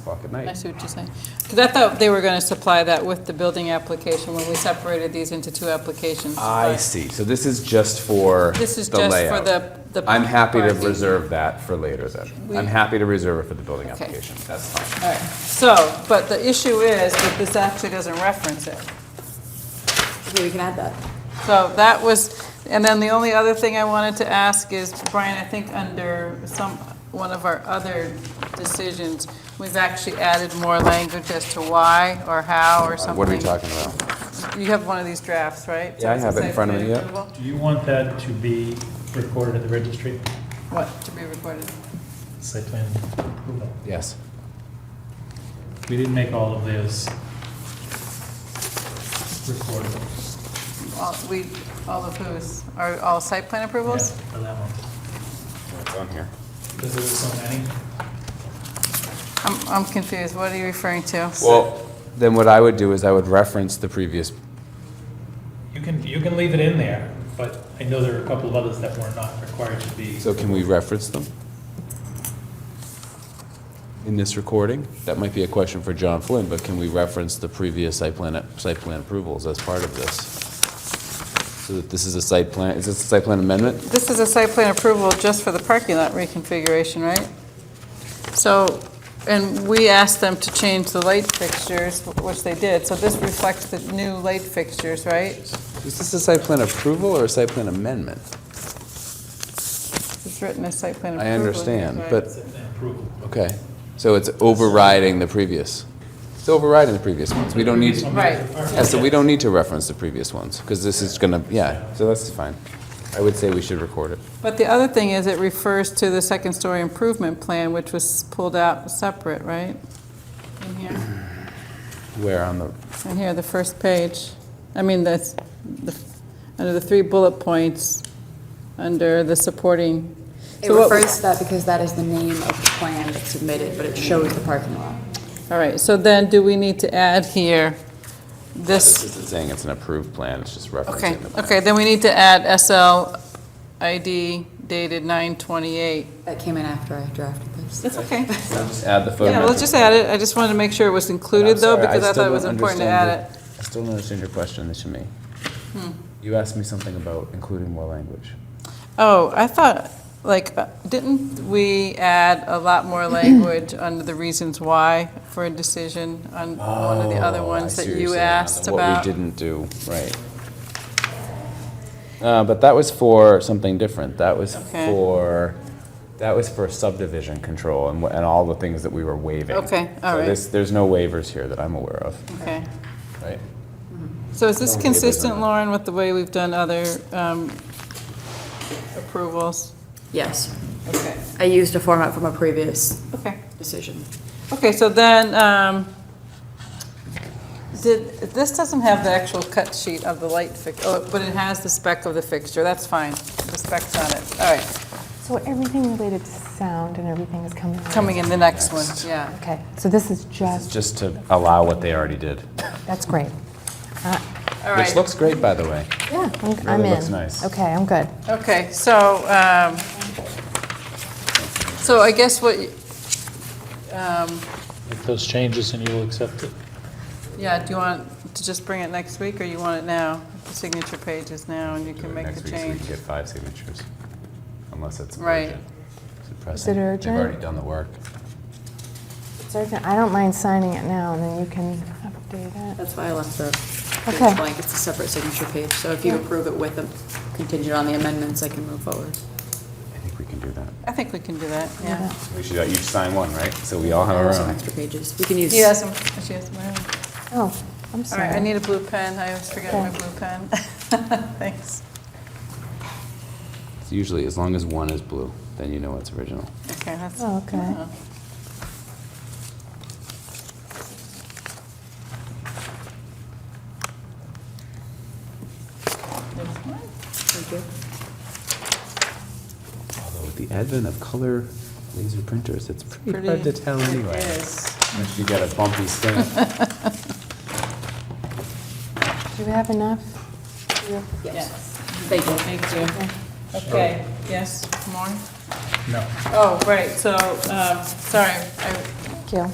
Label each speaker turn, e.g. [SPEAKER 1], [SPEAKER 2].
[SPEAKER 1] o'clock at
[SPEAKER 2] I
[SPEAKER 1] night.
[SPEAKER 2] see what you're saying. Because I thought they were going to supply that with the building application when we separated these into two applications.
[SPEAKER 1] I
[SPEAKER 2] but
[SPEAKER 1] see. So this is just for
[SPEAKER 2] This is
[SPEAKER 1] the
[SPEAKER 2] just for
[SPEAKER 1] layout.
[SPEAKER 2] the. the
[SPEAKER 1] I'm happy to
[SPEAKER 2] parking.
[SPEAKER 1] reserve that for later then.
[SPEAKER 2] We-
[SPEAKER 1] I'm happy to reserve it for the building
[SPEAKER 2] Okay.
[SPEAKER 1] application. That's fine.
[SPEAKER 2] All right, so, but the issue is that this actually doesn't reference it.
[SPEAKER 3] Okay, we can add that.
[SPEAKER 2] So that was, and then the only other thing I wanted to ask is, Brian, I think under some, one of our other decisions, we've actually added more language as to why or how or something.
[SPEAKER 1] What are we talking about?
[SPEAKER 2] You have one of these drafts, right?
[SPEAKER 1] Yeah, I have it in front of me, yeah.
[SPEAKER 2] Approval?
[SPEAKER 4] Do you want that to be recorded at the registry?
[SPEAKER 2] What, to be recorded?
[SPEAKER 4] Site plan approval.
[SPEAKER 1] Yes.
[SPEAKER 4] We didn't make all of those recorded.
[SPEAKER 2] All- We, all of whose, are all site plan
[SPEAKER 4] Yeah,
[SPEAKER 2] approvals?
[SPEAKER 4] For that one.
[SPEAKER 1] It's on here.
[SPEAKER 4] Because there were so many.
[SPEAKER 2] I'm, I'm confused, what are you referring to?
[SPEAKER 1] Well, then what I would do is I would reference the previous,
[SPEAKER 4] You can, you can leave it in there, but I know there are a couple of others that were not required to be.
[SPEAKER 1] so can we reference them? In this recording? That might be a question for John Flynn, but can we reference the previous site plan, site plan approvals as part of this? So that this is a site plan, is this a site plan amendment?
[SPEAKER 2] This is a site plan approval just for the parking lot reconfiguration, right? So, and we asked them to change the light fixtures, which they did, so this reflects the new light fixtures, right?
[SPEAKER 1] Is this a site plan approval or a site plan amendment?
[SPEAKER 2] It's written as site plan approval.
[SPEAKER 1] I understand,
[SPEAKER 2] right?
[SPEAKER 1] but,
[SPEAKER 4] Site plan approval.
[SPEAKER 1] okay, so it's overriding the previous. It's overriding the previous ones. We don't need, to-
[SPEAKER 2] Right.
[SPEAKER 1] yeah, so we don't need to reference the previous ones, because this is gonna, yeah, so that's fine. I would say we should record it.
[SPEAKER 2] But the other thing is, it refers to the second-story improvement plan, which was pulled out separate, right? In here?
[SPEAKER 1] Where on the,
[SPEAKER 2] And here, the first page, I mean, that's, the- under the three bullet points, under the supporting.
[SPEAKER 3] It
[SPEAKER 2] so what we-
[SPEAKER 3] refers to that because that is the name of the plan that's submitted, but it shows the parking lot.
[SPEAKER 2] All right, so then do we need to add here
[SPEAKER 1] this
[SPEAKER 2] this?
[SPEAKER 1] isn't saying it's an approved plan, it's just
[SPEAKER 2] Okay,
[SPEAKER 1] referencing the plan.
[SPEAKER 2] okay, then we need to add SL ID dated 928.
[SPEAKER 3] That came in after I drafted this.
[SPEAKER 2] That's okay.
[SPEAKER 1] Just Add the photo.
[SPEAKER 2] Yeah, let's just add it. I just wanted to make sure it was included though, because I thought it was important to add it. Hmm.
[SPEAKER 1] I still don't understand your question to me. You asked me something about including more language.
[SPEAKER 2] Oh, I thought, like, uh, didn't we add a lot more language under the reasons why for a decision on one of the other
[SPEAKER 1] Oh, I
[SPEAKER 2] ones
[SPEAKER 1] see
[SPEAKER 2] that
[SPEAKER 1] what you're
[SPEAKER 2] you
[SPEAKER 1] saying, on
[SPEAKER 2] asked
[SPEAKER 1] the
[SPEAKER 2] about?
[SPEAKER 1] What we didn't do, right. Uh, But that was for something different. That was
[SPEAKER 2] Okay.
[SPEAKER 1] for, that was for subdivision control and wha- and all the things that we were waiving.
[SPEAKER 2] Okay, all
[SPEAKER 1] So
[SPEAKER 2] right.
[SPEAKER 1] this- There's no waivers here that I'm aware of,
[SPEAKER 2] Okay.
[SPEAKER 1] right?
[SPEAKER 2] So is this
[SPEAKER 1] No waivers on
[SPEAKER 2] consistent,
[SPEAKER 1] that.
[SPEAKER 2] Lauren, with the way we've done other um, approvals?
[SPEAKER 3] Yes,
[SPEAKER 2] Okay,
[SPEAKER 3] I used a format from a previous
[SPEAKER 2] okay.
[SPEAKER 3] decision.
[SPEAKER 2] Okay, so then, um, did, this doesn't have the actual cut sheet of the light fix, oh, but it has the spec of the fixture, that's fine. The spec's on it, all right.
[SPEAKER 5] So everything related to sound and everything is coming. out.
[SPEAKER 2] Coming in the next one, yeah.
[SPEAKER 5] Okay, so this is
[SPEAKER 1] It's
[SPEAKER 5] just,
[SPEAKER 1] just to allow what they already did,
[SPEAKER 5] that's great. Uh,
[SPEAKER 2] All
[SPEAKER 1] which
[SPEAKER 2] right,
[SPEAKER 1] looks great, by the way.
[SPEAKER 5] Yeah, I'm- I'm in.
[SPEAKER 1] looks nice.
[SPEAKER 5] Okay, I'm good.
[SPEAKER 2] okay, so, um, so I guess what, you-
[SPEAKER 4] Make those changes and you'll accept it.
[SPEAKER 2] yeah, do you want to just bring it next week, or you want it now? The signature page is now, and you can make
[SPEAKER 1] Next
[SPEAKER 2] the
[SPEAKER 1] week, so we
[SPEAKER 2] change.
[SPEAKER 1] can get five signatures, unless it's
[SPEAKER 2] Right.
[SPEAKER 1] urgent. Is it
[SPEAKER 5] Is it
[SPEAKER 1] pressing?
[SPEAKER 5] urgent?
[SPEAKER 1] They've already done the work.
[SPEAKER 5] Sergeant, I don't mind signing it now, and then you can update it.
[SPEAKER 3] That's why I left the
[SPEAKER 5] Okay.
[SPEAKER 3] page blank, it's a separate signature page, so if you approve it with a contingent on the amendments, I can move forward.
[SPEAKER 1] I think we can do that.
[SPEAKER 2] I think we can do that, yeah.
[SPEAKER 1] We should uh, each sign one, right? So we all have
[SPEAKER 3] There
[SPEAKER 1] our
[SPEAKER 3] are some
[SPEAKER 1] own.
[SPEAKER 3] extra pages, we can use.
[SPEAKER 2] She has some, she has some.
[SPEAKER 5] Oh, I'm
[SPEAKER 2] All
[SPEAKER 5] sorry.
[SPEAKER 2] right, I need a blue pen, I always forget my
[SPEAKER 5] Okay.
[SPEAKER 2] blue pen. Thanks,
[SPEAKER 1] It's usually as long as one is blue, then you know it's original.
[SPEAKER 2] okay, that's.
[SPEAKER 5] Oh, okay.
[SPEAKER 2] uh, There's one.
[SPEAKER 3] Thank you.
[SPEAKER 1] Although with the advent of color laser printers, it's pretty,
[SPEAKER 2] Pretty-
[SPEAKER 1] hard to tell anyway.
[SPEAKER 2] It is.
[SPEAKER 1] Unless you get a bumpy stamp.
[SPEAKER 5] Do we have enough? Yeah.
[SPEAKER 2] Yes.
[SPEAKER 3] Thank you.
[SPEAKER 2] Thank you. Okay, yes, more?
[SPEAKER 4] No.
[SPEAKER 2] Oh, right, so, um, sorry, I
[SPEAKER 5] Thank you.